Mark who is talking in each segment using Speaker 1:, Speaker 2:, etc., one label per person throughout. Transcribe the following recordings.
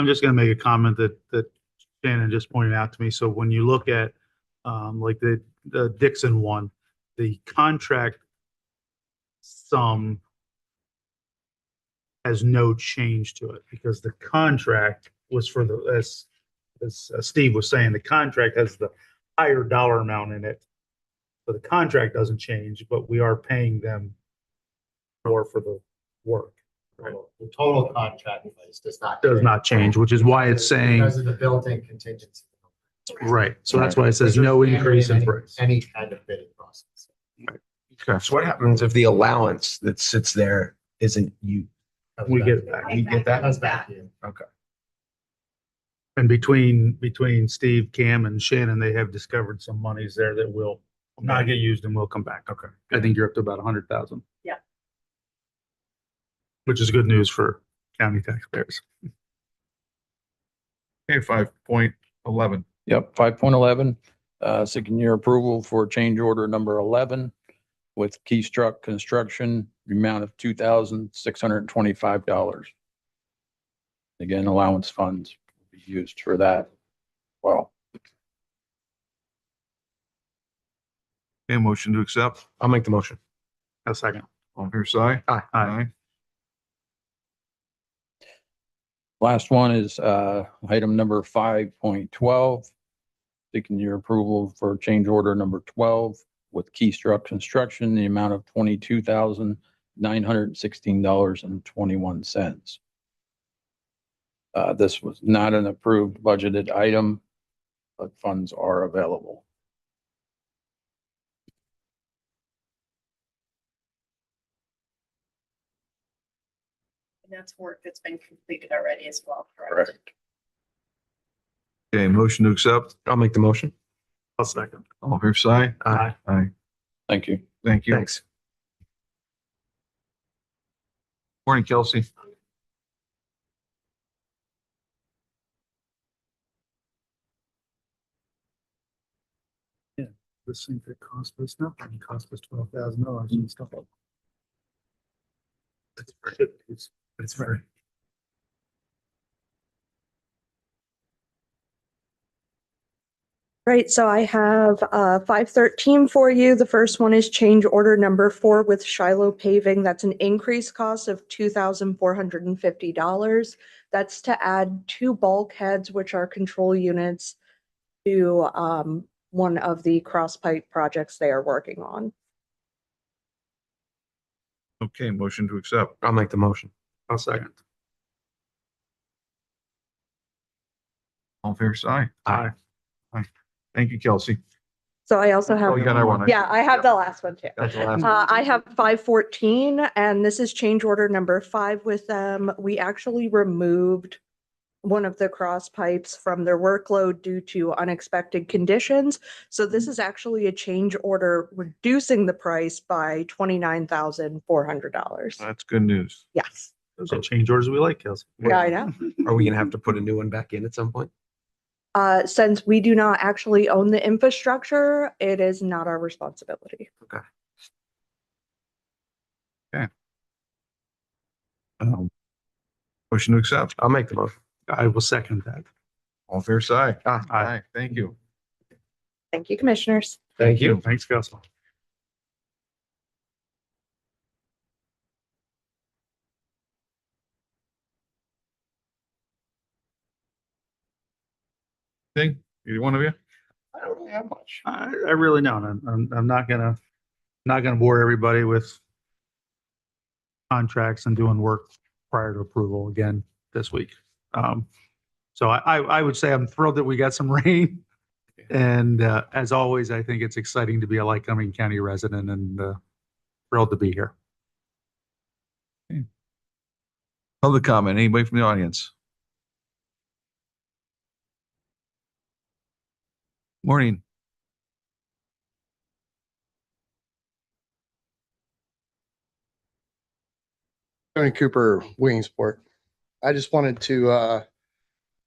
Speaker 1: I'm just gonna make a comment that, that Shannon just pointed out to me. So when you look at, um, like the, the Dixon one, the contract sum has no change to it because the contract was for the, as, as Steve was saying, the contract has the higher dollar amount in it. So the contract doesn't change, but we are paying them more for the work.
Speaker 2: The total contract price does not.
Speaker 1: Does not change, which is why it's saying,
Speaker 2: Because of the built-in contingency.
Speaker 1: right, so that's why it says no
Speaker 2: There's
Speaker 1: increase in
Speaker 2: any-
Speaker 1: price.
Speaker 2: Any kind of bidding process.
Speaker 3: So what happens if the allowance that sits there isn't you?
Speaker 1: We get it back.
Speaker 3: You get that?
Speaker 2: Comes back to you.
Speaker 1: And between, between Steve, Cam and Shannon, they have discovered some monies there that will not get used and will come back. Okay. I think you're up to about a hundred thousand.
Speaker 4: Yeah.
Speaker 1: Which is good news for county taxpayers.
Speaker 5: Okay, five point eleven.
Speaker 6: Yep, five point eleven, uh, seeking your approval for change order number eleven with Keystruck Construction, the amount of two thousand six hundred and twenty-five dollars. Again, allowance funds will be used for that. Well,
Speaker 5: Okay, motion to accept.
Speaker 3: I'll make the motion.
Speaker 1: A second.
Speaker 5: All fair side.
Speaker 3: Aye.
Speaker 5: Aye.
Speaker 6: last one is, uh, item number five point twelve. Seeking your approval for change order number twelve with Keystruck Construction, the amount of twenty-two thousand nine hundred and sixteen dollars and twenty-one cents. Uh, this was not an approved budgeted item, but funds are available.
Speaker 4: And that's work that's been completed already as well, correct?
Speaker 6: Correct.
Speaker 5: Okay, motion to accept.
Speaker 3: I'll make the motion.
Speaker 1: A second.
Speaker 5: All fair side.
Speaker 1: Aye.
Speaker 5: Aye.
Speaker 6: Thank you.
Speaker 5: Thank you.
Speaker 3: Thanks.
Speaker 5: Morning, Kelsey.
Speaker 1: This thing that cost us nothing, it cost us twelve thousand dollars and stuff. That's very.
Speaker 7: Right, so I have uh five thirteen for you. The first one is change order number four with Shiloh paving. That's an increased cost of two thousand four hundred and fifty dollars. That's to add two bulkheads, which are control units to um one of the cross pipe projects they are working on.
Speaker 5: Okay, motion to accept.
Speaker 3: I'll make the motion.
Speaker 1: A second.
Speaker 5: All fair side.
Speaker 3: Aye.
Speaker 5: Aye. Thank you, Kelsey.
Speaker 7: So I also
Speaker 5: Oh,
Speaker 7: have,
Speaker 5: you got that one.
Speaker 7: yeah, I have the last one too.
Speaker 3: That's the last.
Speaker 7: Uh, I have five fourteen and this is change order number five with them. We actually removed one of the cross pipes from their workload due to unexpected conditions. So this is actually a change order reducing the price by twenty-nine thousand four hundred dollars.
Speaker 5: That's good news.
Speaker 7: Yes,
Speaker 1: Those are change orders we like, Kelsey.
Speaker 7: yeah, I know.
Speaker 3: Are we gonna have to put a new one back in at some point?
Speaker 7: Uh, since we do not actually own the infrastructure, it is not our responsibility.
Speaker 5: Um, Motion to accept.
Speaker 3: I'll make the motion.
Speaker 1: I will second that.
Speaker 5: All fair side.
Speaker 3: Aye.
Speaker 5: Aye. Thank you.
Speaker 7: Thank you, commissioners.
Speaker 3: Thank you.
Speaker 1: Thanks, Kelsey.
Speaker 5: Thing, either one of you?
Speaker 3: I don't really have much.
Speaker 1: I, I really don't. I'm, I'm, I'm not gonna, not gonna bore everybody with contracts and doing work prior to approval again this week. Um, so I, I, I would say I'm thrilled that we got some rain. And, uh, as always, I think it's exciting to be a Lycoming County resident and, uh, thrilled to be here.
Speaker 5: Public comment, anybody from the audience? Morning.
Speaker 8: Tony Cooper, Williamsport. I just wanted to, uh,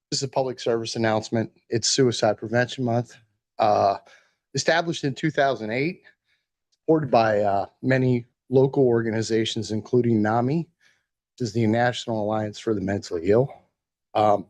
Speaker 8: this is a public service announcement. It's Suicide Prevention Month. Uh, established in two thousand eight, supported by, uh, many local organizations, including NAMI, which is the National Alliance for the Mentally Ill. Um,